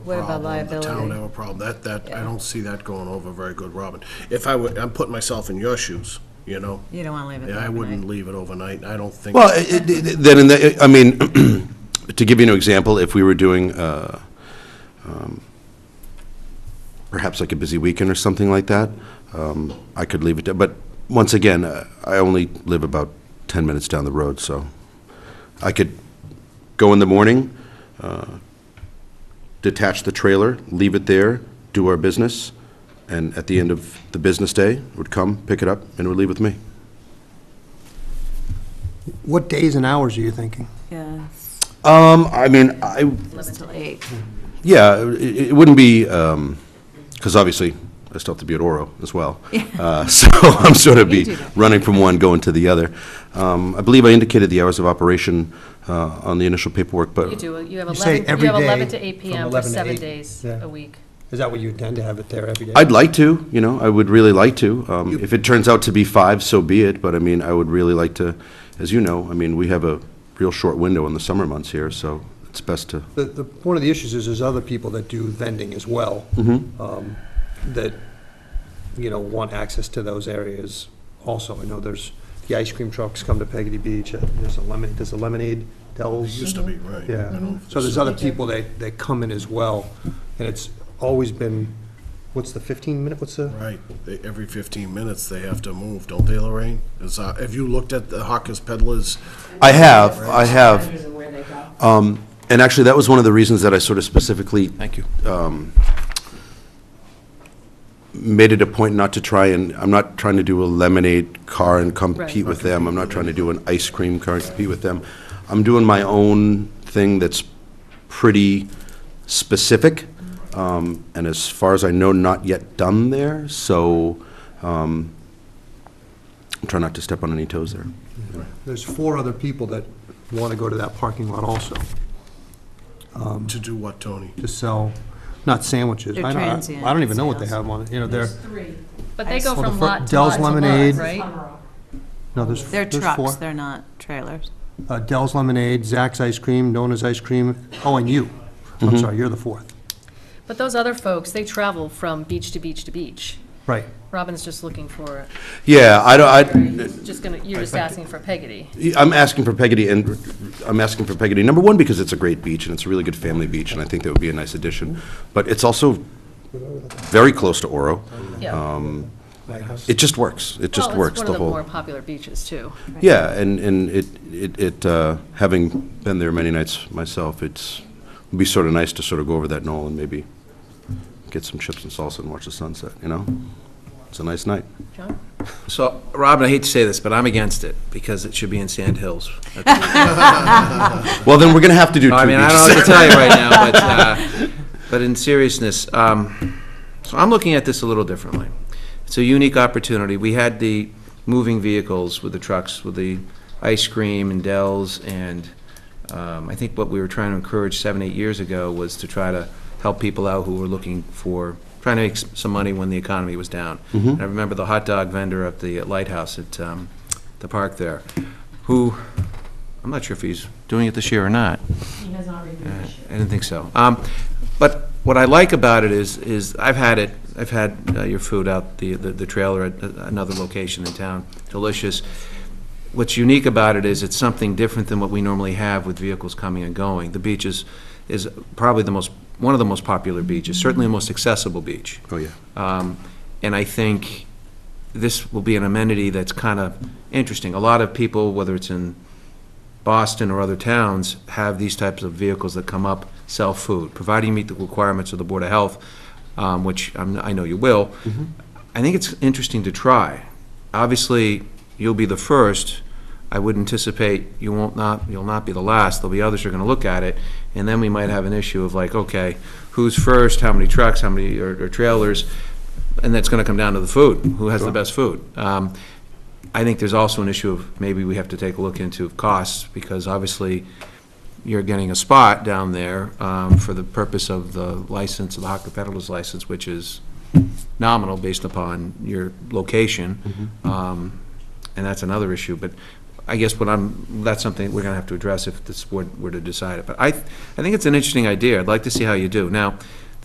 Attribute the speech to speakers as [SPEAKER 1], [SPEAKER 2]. [SPEAKER 1] What about
[SPEAKER 2] problem, The town
[SPEAKER 1] liability?
[SPEAKER 2] have a problem. That, that, I
[SPEAKER 1] Yeah.
[SPEAKER 2] don't see that going over very good, Robin. If I would, I'm putting myself in your shoes, you know?
[SPEAKER 1] You don't want to leave it
[SPEAKER 2] Yeah,
[SPEAKER 1] there
[SPEAKER 2] I wouldn't
[SPEAKER 1] overnight.
[SPEAKER 2] leave it overnight. I don't think.
[SPEAKER 3] Well, it- it- it- then, in the- I mean, to give you an example, if we were doing uh, um, perhaps like a busy weekend or something like that, um, I could leave it, there. but once again, uh, I only live about 10 minutes down the road, so I could go in the morning, uh, detach the trailer, leave it there, do our business, and at the end of the business day, would come, pick it up, and it would leave with me.
[SPEAKER 4] What days and hours are you thinking?
[SPEAKER 1] Yeah,
[SPEAKER 3] Um, I mean, I
[SPEAKER 1] 11 till 8.
[SPEAKER 3] Yeah, it, it wouldn't be, because obviously, I still have to be at Oro as well. Uh, So I'm sort of
[SPEAKER 1] You do
[SPEAKER 3] be
[SPEAKER 1] that.
[SPEAKER 3] running from one, going to the other. Um, I believe I indicated the hours of operation uh, on the initial paperwork, but.
[SPEAKER 5] You do, you have
[SPEAKER 4] You say
[SPEAKER 5] 11,
[SPEAKER 4] every
[SPEAKER 5] you have 11
[SPEAKER 4] day
[SPEAKER 5] to 8
[SPEAKER 4] from
[SPEAKER 5] PM for
[SPEAKER 4] 11 to
[SPEAKER 5] seven
[SPEAKER 4] 8,
[SPEAKER 5] days
[SPEAKER 4] yeah.
[SPEAKER 5] a week.
[SPEAKER 4] Is that what you intend to have it there every day?
[SPEAKER 3] I'd like to, you know, I would really like to. Um, If it turns out to be five, so be it, but I mean, I would really like to, as you know, I mean, we have a real short window in the summer months here, so it's best to,
[SPEAKER 4] The, the, one of the issues is there's other people that do vending as well. um, That, you know, want access to those areas also. I know there's, the ice cream trucks come to Peggy Beach, uh, there's a lemonade, there's a lemonade,
[SPEAKER 2] It
[SPEAKER 4] Dell's.
[SPEAKER 2] used to be, right. I
[SPEAKER 4] Yeah,
[SPEAKER 2] don't-
[SPEAKER 4] so there's other people that, that come in as well, and it's always been, what's the 15 minute, what's the?
[SPEAKER 2] Right. They- Every 15 minutes, they have to move, don't they, Lorraine? Is, uh, have you looked at the Hawkers Peddlers?
[SPEAKER 3] I have, I have. Um, And actually, that was one of the reasons that I sort of specifically. Thank you. Made it a point not to try and, I'm not trying to do a lemonade car and compete with them. I'm not trying to do an ice cream car and compete with them. I'm doing my own thing that's pretty specific, um, and as far as I know, not yet done there, so um, I'm trying not to step on any toes there.
[SPEAKER 4] There's four other people that want to go to that parking lot also,
[SPEAKER 2] To do what, Tony?
[SPEAKER 4] to sell, not sandwiches.
[SPEAKER 1] They're
[SPEAKER 4] I don't- I-
[SPEAKER 1] transient
[SPEAKER 4] I don't even know what they
[SPEAKER 1] sales.
[SPEAKER 4] have on, it. you know, they're,
[SPEAKER 6] Three.
[SPEAKER 5] But they go
[SPEAKER 4] Well, the
[SPEAKER 5] from
[SPEAKER 4] fir-
[SPEAKER 5] lot to lot
[SPEAKER 4] Dell's
[SPEAKER 5] to lot,
[SPEAKER 4] Lemonade.
[SPEAKER 5] right?
[SPEAKER 4] no, there's,
[SPEAKER 1] They're
[SPEAKER 4] there's
[SPEAKER 1] trucks,
[SPEAKER 4] four.
[SPEAKER 1] they're not trailers.
[SPEAKER 4] Uh, Dell's Lemonade, Zack's Ice Cream, Nona's Ice Cream, oh, and you. I'm sorry, you're the fourth.
[SPEAKER 5] But those other folks, they travel from beach to beach to beach.
[SPEAKER 4] Right.
[SPEAKER 5] Robin's just looking for,
[SPEAKER 3] Yeah, I don't, I,
[SPEAKER 5] just gonna, you're just asking for Peggotty.
[SPEAKER 3] I'm asking for Peggotty, and I'm asking for Peggotty, number one, because it's a great beach, and it's a really good family beach, and I think that would be a nice addition. But it's also very close to Oro.
[SPEAKER 5] Yeah.
[SPEAKER 3] It just works. It Um, just works, the
[SPEAKER 5] Well, it's one of the
[SPEAKER 3] whole.
[SPEAKER 5] more popular beaches, too.
[SPEAKER 3] Yeah, and, and it, it, it, uh, having been there many nights myself, it's, would be sort of nice to sort of go over that knoll and maybe get some chips and salsa and watch the sunset, you know? It's a nice night.
[SPEAKER 5] John?
[SPEAKER 7] So, Robin, I hate to say this, but I'm against it, because it should be in Sand Hills.
[SPEAKER 3] Well, then, we're gonna have to do two
[SPEAKER 7] I mean, I don't know
[SPEAKER 3] beaches.
[SPEAKER 7] what to tell you right now, but, uh, but in seriousness, um, so I'm looking at this a little differently. It's a unique opportunity. We had the moving vehicles with the trucks, with the ice cream and Dells, and um, I think what we were trying to encourage seven, eight years ago was to try to help people out who were looking for, trying to make s- some money when the economy was down.
[SPEAKER 3] Mm-hmm.
[SPEAKER 7] And I remember the hot dog vendor at the Lighthouse at um, the park there, who, I'm not sure if he's doing it this year or not.
[SPEAKER 6] He has not renewed this year.
[SPEAKER 7] I didn't think so. Um, But what I like about it is, is I've had it, I've had uh, your food out, the, the the trailer at another location in town, delicious. What's unique about it is it's something different than what we normally have with vehicles coming and going. The beach is, is probably the most, one of the most popular beaches, certainly the most accessible beach.
[SPEAKER 3] Oh, yeah.
[SPEAKER 7] Um, And I think this will be an amenity that's kind of interesting. A lot of people, whether it's in Boston or other towns, have these types of vehicles that come up, sell food, providing you meet the requirements of the Board of Health, um, which I'm- I know you will. I think it's interesting to try. Obviously, you'll be the first. I would anticipate you won't not, you'll not be the last. There'll be others who are going to look at it, and then we might have an issue of like, okay, who's first, how many trucks, how many, or or trailers? And that's going to come down to the food, who has the best food. Um, I think there's also an issue of maybe we have to take a look into costs, because obviously you're getting a spot down there um, for the purpose of the license, of the hawker peddler's license, which is nominal based upon your location. Um, And that's another issue, but I guess what I'm, that's something we're gonna have to address if this board were to decide it. But I, I think it's an interesting idea. I'd like to see how you do. Now,